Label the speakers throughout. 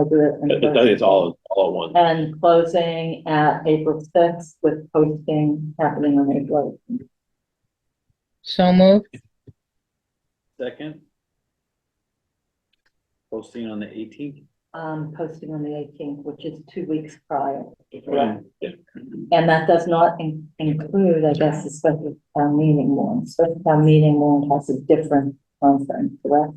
Speaker 1: I'll do it.
Speaker 2: I
Speaker 1: in
Speaker 2: think it's all, all at once.
Speaker 1: And closing at April sixth with posting happening on April. eighth.
Speaker 3: So moved.
Speaker 2: Second. Posting on the eighteenth.
Speaker 1: Um, posting on the eighteenth, which is two weeks prior.
Speaker 2: Right.
Speaker 1: And that does not in- include, I guess, the special town meeting warrant. Special town meeting warrant has a different timeframe, correct?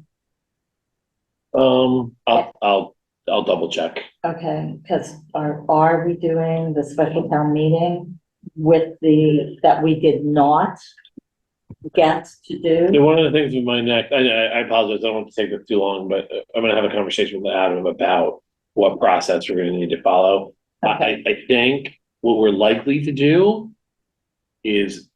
Speaker 2: Um, I'll, I'll, I'll double check.
Speaker 1: Okay, because are, are we doing the special town meeting with the, that we did not get to
Speaker 2: Yeah,
Speaker 1: do?
Speaker 2: one of the things with my neck, I, I I apologize, I don't want to take this too long, but uh, I'm gonna have a conversation with Adam about what process we're gonna need to follow. I, I, I think what we're likely to do is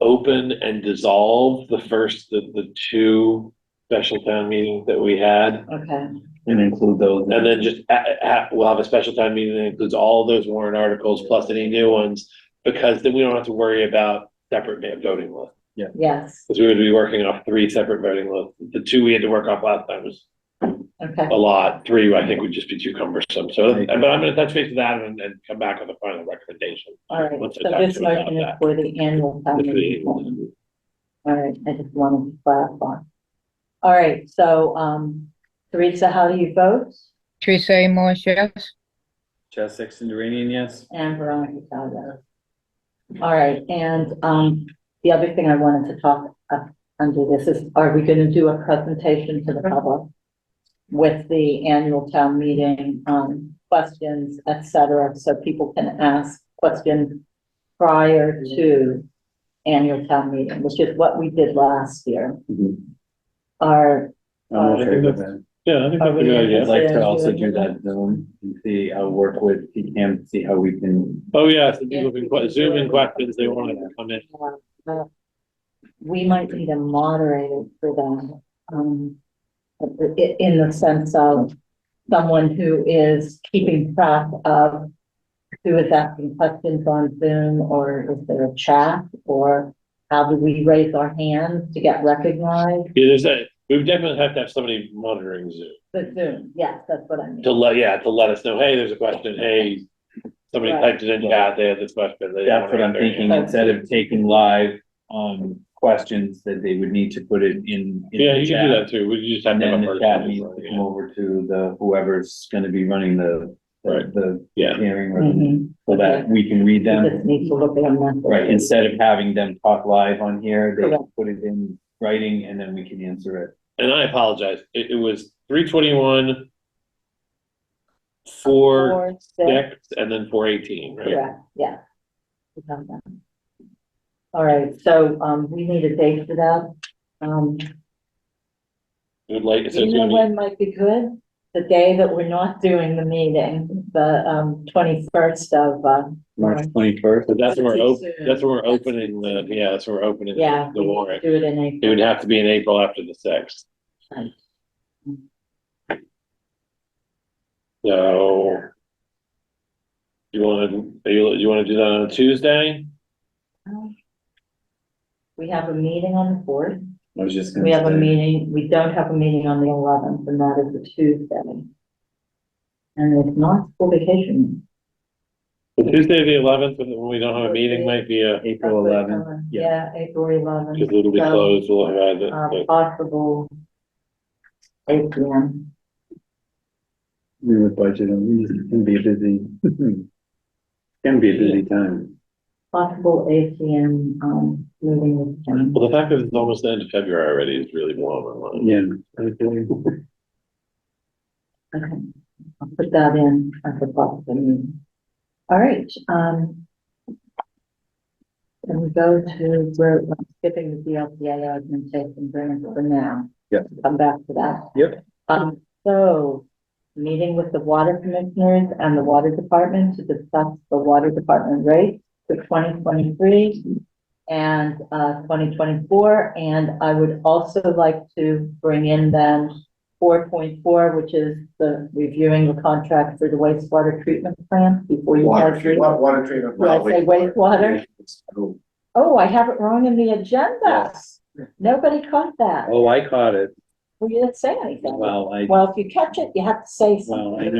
Speaker 2: open and dissolve the first, the, the two special town meetings that we had.
Speaker 1: Okay,
Speaker 4: And include those.
Speaker 2: And then just, a- a- we'll have a special town meeting that includes all those warrant articles plus any new ones, because then we don't have to worry about separate voting lists.
Speaker 1: yes,
Speaker 2: Because we would be working off three separate voting lists. The two we had to work off last time was
Speaker 1: okay,
Speaker 2: a lot. Three, I think, would just be too cumbersome. So, but I'm gonna touch base with that and, and come back with a final recommendation.
Speaker 1: all right.
Speaker 2: Once I
Speaker 1: So
Speaker 2: talk
Speaker 1: this
Speaker 2: to him about
Speaker 1: motion is
Speaker 2: that.
Speaker 1: for the annual town
Speaker 2: If
Speaker 1: meeting.
Speaker 2: we-
Speaker 1: warrant. All right, I just wanted to clarify. All right, so, um, Teresa, how do you vote?
Speaker 3: Teresa A. Moore, yes.
Speaker 4: Chaz Sexton Duranian, yes.
Speaker 1: And Veronica Calvo. All right, and, um, the other thing I wanted to talk up under this is, are we gonna do a presentation to the public? With the annual town meeting, um, questions, et cetera, so people can ask questions prior to annual town meeting, which is what we did last year.
Speaker 4: Mhm.
Speaker 1: Our,
Speaker 4: I'm okay with that.
Speaker 2: Yeah, I think Oh, that's a good
Speaker 4: I'd
Speaker 2: idea.
Speaker 4: like to also do that Zoom and see, I'll work with PCAM, see how we can.
Speaker 2: Oh, yeah, so people can que- zoom in questions they want to come in.
Speaker 1: uh, we might need a moderator for that, um, i- in the sense of someone who is keeping track of who is asking questions on Zoom, or is there a chat, or how do we raise our hands to get recognized?
Speaker 2: Yeah, there's a, we would definitely have to have somebody monitoring Zoom
Speaker 1: The Zoom, yes, that's what I mean.
Speaker 2: to let, yeah, to let us know, hey, there's a question, hey, somebody
Speaker 1: Right.
Speaker 2: typed it in chat, they had this question. they
Speaker 4: That's what
Speaker 2: wanna
Speaker 4: I'm
Speaker 2: answer it.
Speaker 4: thinking, instead of taking live, um, questions that they would need to put it in. in the
Speaker 2: Yeah, you can do
Speaker 4: chat.
Speaker 2: that too. We just have
Speaker 4: And
Speaker 2: to have
Speaker 4: then
Speaker 2: a
Speaker 4: the chat
Speaker 2: person.
Speaker 4: needs
Speaker 2: who's
Speaker 4: to
Speaker 2: running
Speaker 4: come
Speaker 2: it.
Speaker 4: over to the, whoever's gonna be running the,
Speaker 2: Right.
Speaker 4: the the
Speaker 2: Yeah,
Speaker 4: hearing
Speaker 2: Mm-hmm.
Speaker 4: room,
Speaker 1: Mhm.
Speaker 4: so that we can read
Speaker 1: You
Speaker 4: them.
Speaker 1: just need to look at them. that's-
Speaker 4: Right, instead of having them talk live on here, they
Speaker 1: Correct.
Speaker 4: put it in writing and then we can answer it.
Speaker 2: and I apologize. It, it was three twenty-one, four,
Speaker 1: Four, six,
Speaker 2: six, and then four eighteen, right?
Speaker 1: correct, yeah. We have that. All right, so, um, we need a date for that. Um,
Speaker 2: It would like, so
Speaker 1: Do you
Speaker 2: it's
Speaker 1: know
Speaker 2: gonna
Speaker 1: when might be good? The day that we're not doing the meeting, the um twenty-first of uh. March.
Speaker 4: twenty-first.
Speaker 2: be, but that's when we're
Speaker 1: That's
Speaker 2: open,
Speaker 1: too soon.
Speaker 2: that's when we're opening the, yeah, that's when we're opening
Speaker 1: Yeah.
Speaker 2: the
Speaker 1: we
Speaker 2: warrant.
Speaker 1: Do it in April.
Speaker 2: It would have to be in April after the sixth.
Speaker 1: Right.
Speaker 2: So. You wanna, do you, you wanna do that on a Tuesday?
Speaker 1: We have a meeting on the fourth.
Speaker 4: I was just gonna
Speaker 1: We have a
Speaker 4: say.
Speaker 1: meeting, we don't have a meeting on the eleventh, and that is a Tuesday. And it's not school vacation.
Speaker 2: Tuesday, the eleventh, when we don't have a meeting, might be a,
Speaker 4: April eleventh,
Speaker 1: Yeah,
Speaker 4: yeah.
Speaker 1: April
Speaker 2: because
Speaker 1: eleventh,
Speaker 2: it'll be
Speaker 1: So,
Speaker 2: closed, we'll have
Speaker 1: uh,
Speaker 2: it.
Speaker 1: possible eight P M.
Speaker 4: we would budget, it can be busy. Can be
Speaker 2: a busy
Speaker 4: time.
Speaker 1: Possible eight P M, um, meeting with Jim.
Speaker 2: Well, the fact that it's almost the end of February already is really warm.
Speaker 4: Yeah.
Speaker 1: Okay, I'll put that in as a possible meeting. All right, um. Can we go to, we're skipping the DLCA augmentation grant for now.
Speaker 4: Yeah.
Speaker 1: Come back to that.
Speaker 4: Yep.
Speaker 1: Um, so, meeting with the water commissioners and the water department to discuss the water department rate for twenty twenty-three and, uh, twenty twenty-four, and I would also like to bring in then four point four, which is the reviewing the contract for the wastewater treatment plant before you.
Speaker 5: Water,
Speaker 1: have
Speaker 5: treat- wa- water treatment.
Speaker 1: Did I say wastewater? Oh, I have it wrong in the agenda.
Speaker 5: Yes.
Speaker 1: Nobody caught that.
Speaker 4: Oh, I caught it.
Speaker 1: Well, you didn't say anything.
Speaker 4: Well, I,
Speaker 1: Well, if you catch it, you have to say something.
Speaker 4: well, I know.